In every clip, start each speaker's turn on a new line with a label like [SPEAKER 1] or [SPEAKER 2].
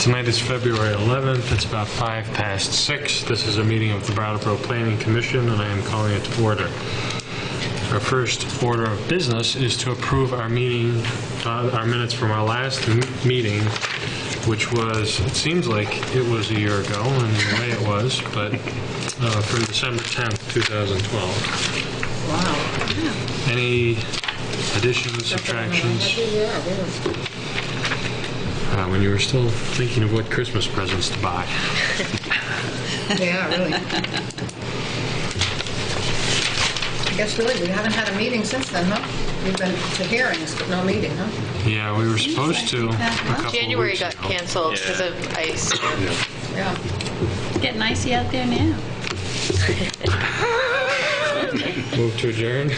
[SPEAKER 1] Tonight is February 11th, it's about 5 past 6. This is a meeting of the Brattleboro Planning Commission, and I am calling it to order. Our first order of business is to approve our meeting, uh, our minutes from our last m- meeting, which was, it seems like it was a year ago, and the way it was, but uh, from December 10th, 2012.
[SPEAKER 2] Wow.
[SPEAKER 1] Any additions, subtractions?
[SPEAKER 2] Yeah, it is.
[SPEAKER 1] Uh, When you were still thinking of what Christmas presents to buy.
[SPEAKER 2] Yeah, really. I guess really, we haven't had a meeting since then, huh? We've been to hearings, but no meeting, huh?
[SPEAKER 1] Yeah, we were supposed to a couple of
[SPEAKER 3] January
[SPEAKER 1] weeks
[SPEAKER 3] got
[SPEAKER 1] ago.
[SPEAKER 3] canceled because of ice.
[SPEAKER 2] Yeah.
[SPEAKER 4] Getting icy out there now.
[SPEAKER 1] Move to adjourn?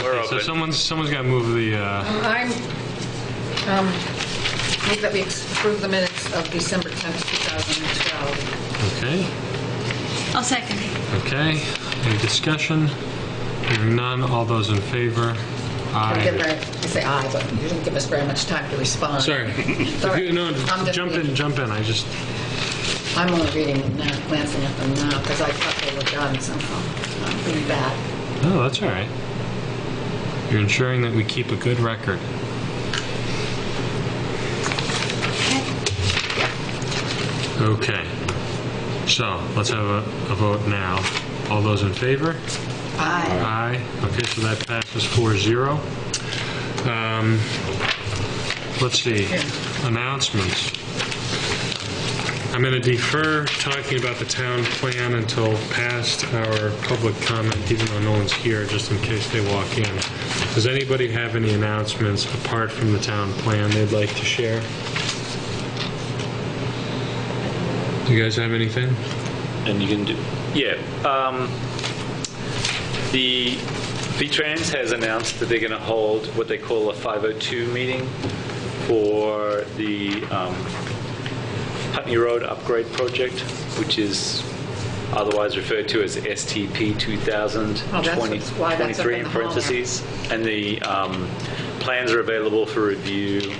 [SPEAKER 5] We're
[SPEAKER 1] So
[SPEAKER 5] open.
[SPEAKER 1] someone's, someone's got to move the, uh,
[SPEAKER 2] I'm, um, move that we approve the minutes of December 10th, 2012.
[SPEAKER 1] okay,
[SPEAKER 4] I'll second it.
[SPEAKER 1] okay. Any discussion? Hearing none, all those in favor?
[SPEAKER 2] I didn't
[SPEAKER 1] Aye.
[SPEAKER 2] very- I say aye, but you didn't give us very much time to respond.
[SPEAKER 1] Sorry. If you- No,
[SPEAKER 2] I'm just
[SPEAKER 1] jump in,
[SPEAKER 2] reading.
[SPEAKER 1] jump in, I just,
[SPEAKER 2] I'm only reading them now, glancing at them now, because I thought they were done somehow. I'm pretty bad.
[SPEAKER 1] no, Oh, that's all right. You're ensuring that we keep a good record. Okay. So, let's have a a vote now. All those in favor?
[SPEAKER 2] Aye.
[SPEAKER 1] Aye. Okay, so that passes 4-0. Um, Let's see, announcements. I'm going to defer talking about the town plan until past our public comment, even though no one's here, just in case they walk in. Does anybody have any announcements apart from the town plan they'd like to share? Do you guys have anything?
[SPEAKER 5] And you can do, yeah. um, The V-Trans has announced that they're going to hold what they call a 502 meeting for the um, Putney Road Upgrade Project, which is otherwise referred to as STP 2023
[SPEAKER 2] Oh, that's what's- why that's up in
[SPEAKER 5] in
[SPEAKER 2] the hall there.
[SPEAKER 5] parentheses. And the um, plans are available for review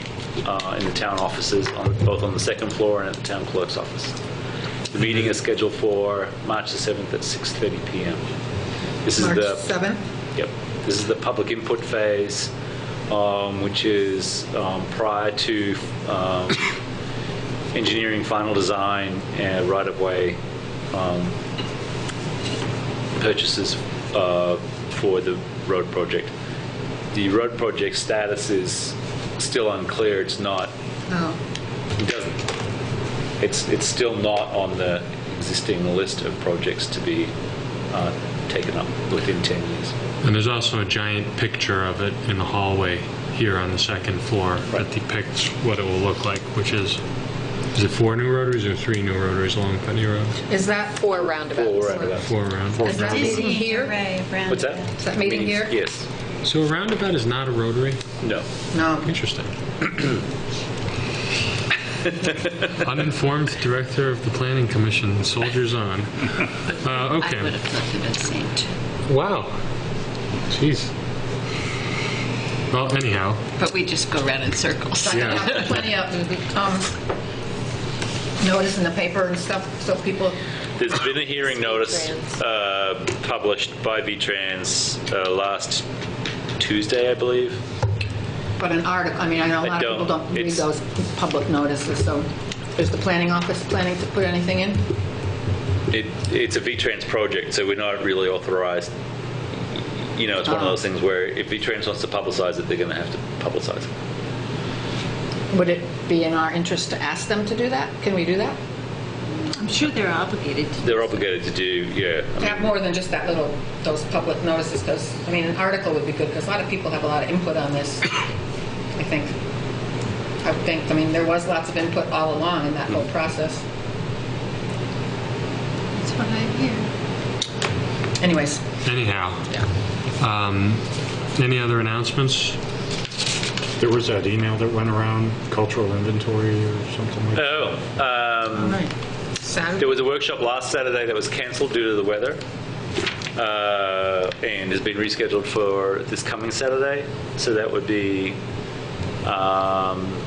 [SPEAKER 5] uh, in the town offices, on- both on the second floor and at the town clerk's office. The meeting is scheduled for March the 7th at 6:30 PM. This is
[SPEAKER 2] March
[SPEAKER 5] the,
[SPEAKER 2] 7th?
[SPEAKER 5] yep, this is the public input phase, um, which is um, prior to um, engineering final design and right-of-way um, purchases uh, for the road project. The road project status is still unclear. It's not
[SPEAKER 2] Oh.
[SPEAKER 5] it doesn't. It's, it's still not on the existing list of projects to be uh, taken up within 10 years.
[SPEAKER 1] And there's also a giant picture of it in the hallway here on the second floor that
[SPEAKER 5] Right.
[SPEAKER 1] depicts what it will look like, which is, is it four new rotaries or three new rotaries along Putney Road?
[SPEAKER 2] Is that,
[SPEAKER 3] Four
[SPEAKER 5] Full
[SPEAKER 3] roundabouts.
[SPEAKER 5] roundabouts.
[SPEAKER 1] Four around.
[SPEAKER 2] is that meeting here?
[SPEAKER 5] What's that?
[SPEAKER 2] Is that meeting here?
[SPEAKER 5] Meetings, Yes.
[SPEAKER 1] So a roundabout is not a rotary?
[SPEAKER 5] No.
[SPEAKER 2] No.
[SPEAKER 1] Interesting. Uninformed director of the planning commission, soldiers on. Uh,
[SPEAKER 4] I would
[SPEAKER 1] okay.
[SPEAKER 4] have thought you would have seen too.
[SPEAKER 1] Wow. Jeez. Well, anyhow,
[SPEAKER 4] But we just go around in circles.
[SPEAKER 2] So I can have plenty of um, notice in the paper and stuff, so people,
[SPEAKER 5] There's been a hearing notice uh, published by V-Trans uh, last Tuesday, I believe.
[SPEAKER 2] but an article, I mean, I know a
[SPEAKER 5] I
[SPEAKER 2] lot of people
[SPEAKER 5] don't.
[SPEAKER 2] don't read
[SPEAKER 5] It's-
[SPEAKER 2] those public notices, so is the planning office planning to put anything in?
[SPEAKER 5] It, it's a V-Trans project, so we're not really authorized. You know, it's one of
[SPEAKER 2] Oh.
[SPEAKER 5] those things where if V-Trans wants to publicize it, they're going to have to publicize it.
[SPEAKER 2] Would it be in our interest to ask them to do that? Can we do that?
[SPEAKER 4] I'm sure they're obligated to.
[SPEAKER 5] They're obligated to do, yeah. I mean,
[SPEAKER 2] Have more than just that little, those public notices, because, I mean, an article would be good, because a lot of people have a lot of input on this, I think. I would think, I mean, there was lots of input all along in that whole process.
[SPEAKER 4] That's what I hear.
[SPEAKER 2] Anyways,
[SPEAKER 1] anyhow. Um, Any other announcements?
[SPEAKER 6] There was that email that went around, cultural inventory or something like that.
[SPEAKER 5] Oh, um, there
[SPEAKER 2] Saturday,
[SPEAKER 5] was a workshop last Saturday that was canceled due to the weather uh, and has been rescheduled for this coming Saturday. So that would be um,